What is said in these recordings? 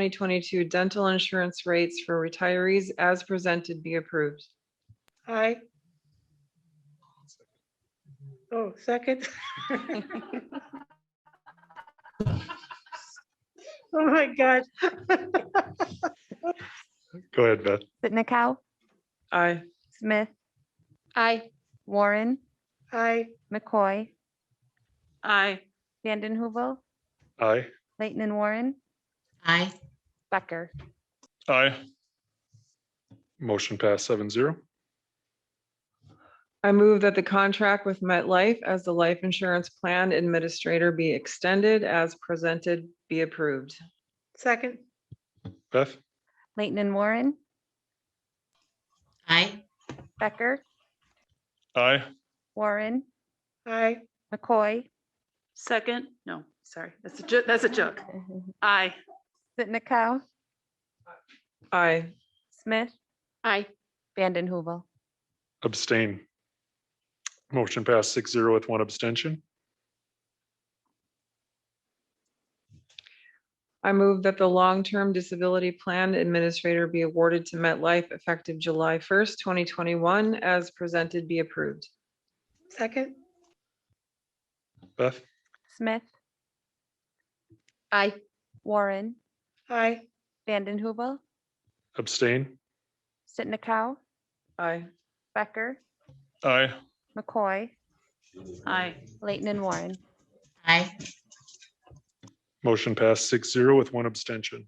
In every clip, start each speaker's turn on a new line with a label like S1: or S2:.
S1: 2022 dental insurance rates for retirees as presented be approved.
S2: Aye. Oh, second. Oh, Oh my God.
S3: Go ahead, Beth.
S4: Sitnikau,
S1: Aye.
S4: Smith,
S5: Aye.
S4: Warren,
S2: Aye.
S4: McCoy,
S1: Aye.
S4: Vanden Heuvel,
S3: Aye.
S4: Leighton and Warren,
S5: Aye.
S4: Becker.
S6: Aye.
S3: Motion passed seven zero.
S1: I move that the contract with MetLife as the life insurance plan administrator be extended as presented be approved.
S2: Second.
S3: Beth?
S4: Leighton and Warren,
S5: Aye.
S4: Becker,
S6: Aye.
S4: Warren,
S2: Aye.
S4: McCoy,
S7: Second, no, sorry, that's a, jo- that's a joke. Aye.
S4: Sitnikau,
S1: Aye.
S4: Smith,
S5: Aye.
S4: Vanden Heuvel.
S3: Abstain. Motion passed six zero with one abstention.
S1: I move that the long-term disability plan administrator be awarded to MetLife effective July 1st, 2021, as presented be approved.
S2: Second.
S3: Beth?
S4: Smith,
S5: Aye.
S4: Warren,
S2: Aye.
S4: Vanden Heuvel,
S3: Abstain.
S4: Sitnikau,
S1: Aye.
S4: Becker,
S6: Aye.
S4: McCoy,
S7: Aye.
S4: Leighton and Warren.
S5: Aye.
S3: Motion passed six zero with one abstention.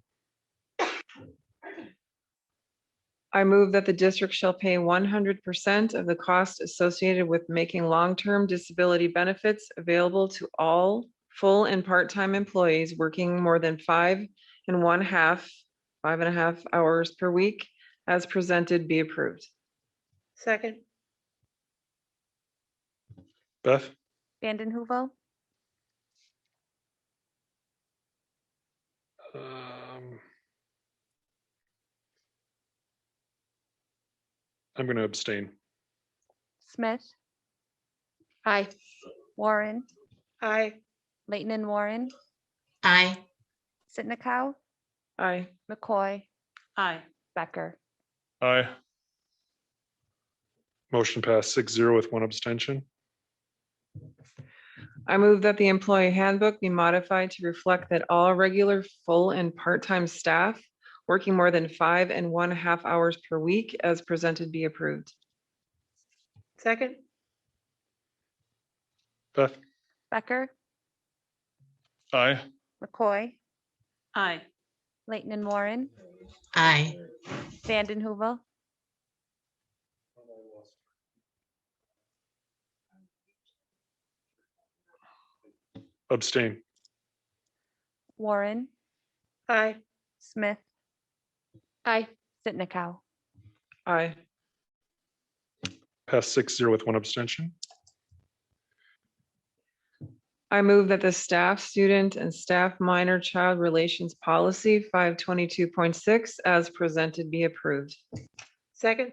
S1: I move that the district shall pay one hundred percent of the cost associated with making long-term disability benefits available to all full and part-time employees working more than five and one half, five and a half hours per week, as presented be approved.
S2: Second.
S3: Beth?
S4: Vanden Heuvel,
S3: Um, I'm going to abstain.
S4: Smith,
S5: Aye.
S4: Warren,
S2: Aye.
S4: Leighton and Warren,
S5: Aye.
S4: Sitnikau,
S1: Aye.
S4: McCoy,
S7: Aye.
S4: Becker.
S6: Aye.
S3: Motion passed six zero with one abstention.
S1: I move that the employee handbook be modified to reflect that all regular, full, and part-time staff working more than five and one half hours per week, as presented be approved.
S2: Second.
S3: Beth?
S4: Becker,
S6: Aye.
S4: McCoy,
S7: Aye.
S4: Leighton and Warren,
S5: Aye.
S4: Vanden Heuvel,
S3: Abstain.
S4: Warren,
S2: Aye.
S4: Smith,
S5: Aye.
S4: Sitnikau.
S1: Aye.
S3: Passed six zero with one abstention.
S1: I move that the staff, student, and staff minor child relations policy five twenty-two point six as presented be approved.
S2: Second.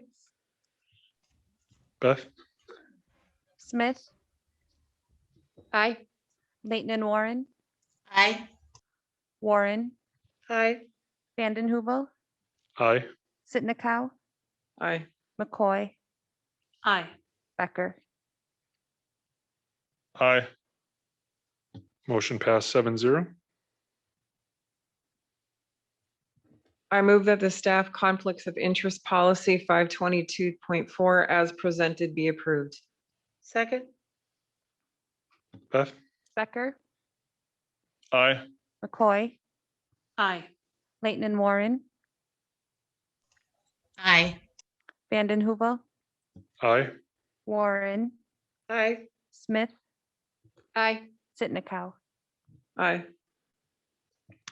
S3: Beth?
S4: Smith,
S5: Aye.
S4: Leighton and Warren,
S5: Aye.
S4: Warren,
S2: Aye.
S4: Vanden Heuvel,
S3: Aye.
S4: Sitnikau,
S1: Aye.
S4: McCoy,
S7: Aye.
S4: Becker.
S6: Aye.
S3: Motion passed seven zero.
S1: I move that the staff conflicts of interest policy five twenty-two point four as presented be approved.
S2: Second.
S3: Beth?
S4: Becker,
S6: Aye.
S4: McCoy,
S7: Aye.
S4: Leighton and Warren,
S5: Aye.
S4: Vanden Heuvel,
S3: Aye.
S4: Warren,
S2: Aye.
S4: Smith,
S5: Aye.
S4: Sitnikau.
S1: Aye.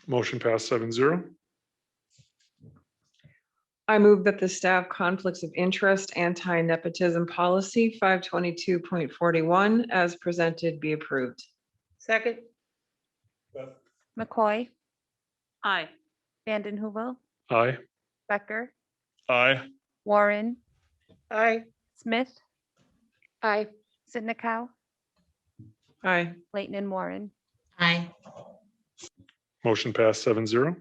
S3: Motion passed seven zero.
S1: I move that the staff conflicts of interest anti-nepotism policy five twenty-two point forty-one as presented be approved.
S2: Second.
S4: McCoy,
S7: Aye.
S4: Vanden Heuvel,
S3: Aye.
S4: Becker,
S6: Aye.
S4: Warren,
S2: Aye.
S4: Smith,
S5: Aye.
S4: Sitnikau,
S1: Aye.
S4: Leighton and Warren.
S5: Aye.
S3: Motion passed seven zero.